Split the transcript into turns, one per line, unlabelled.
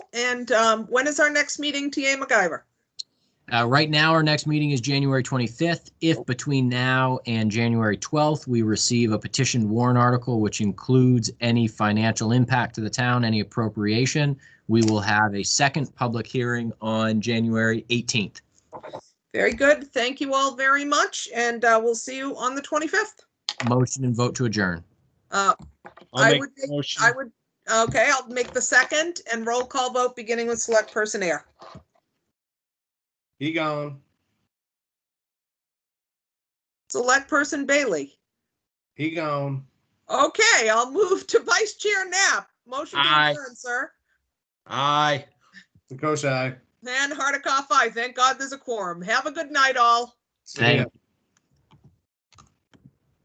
And um, when is our next meeting, TA MacGyver?
Uh, right now, our next meeting is January 25th. If between now and January 12th, we receive a petitioned warrant article, which includes any financial impact to the town, any appropriation, we will have a second public hearing on January 18th.
Very good. Thank you all very much, and uh, we'll see you on the 25th.
Motion and vote to adjourn.
Uh,
I'll
I
make
would
the
make-
motion.
I would, okay, I'll make the second and roll call vote, beginning with Select Person Air.
He gone.
Select Person Bailey.
He gone.
Okay, I'll move to Vice Chair Knapp. Motion to
Aye.
adjourn, sir.
Aye. Koshai.
And Hardikoff, aye. Thank God there's a quorum. Have a good night, all.
Thank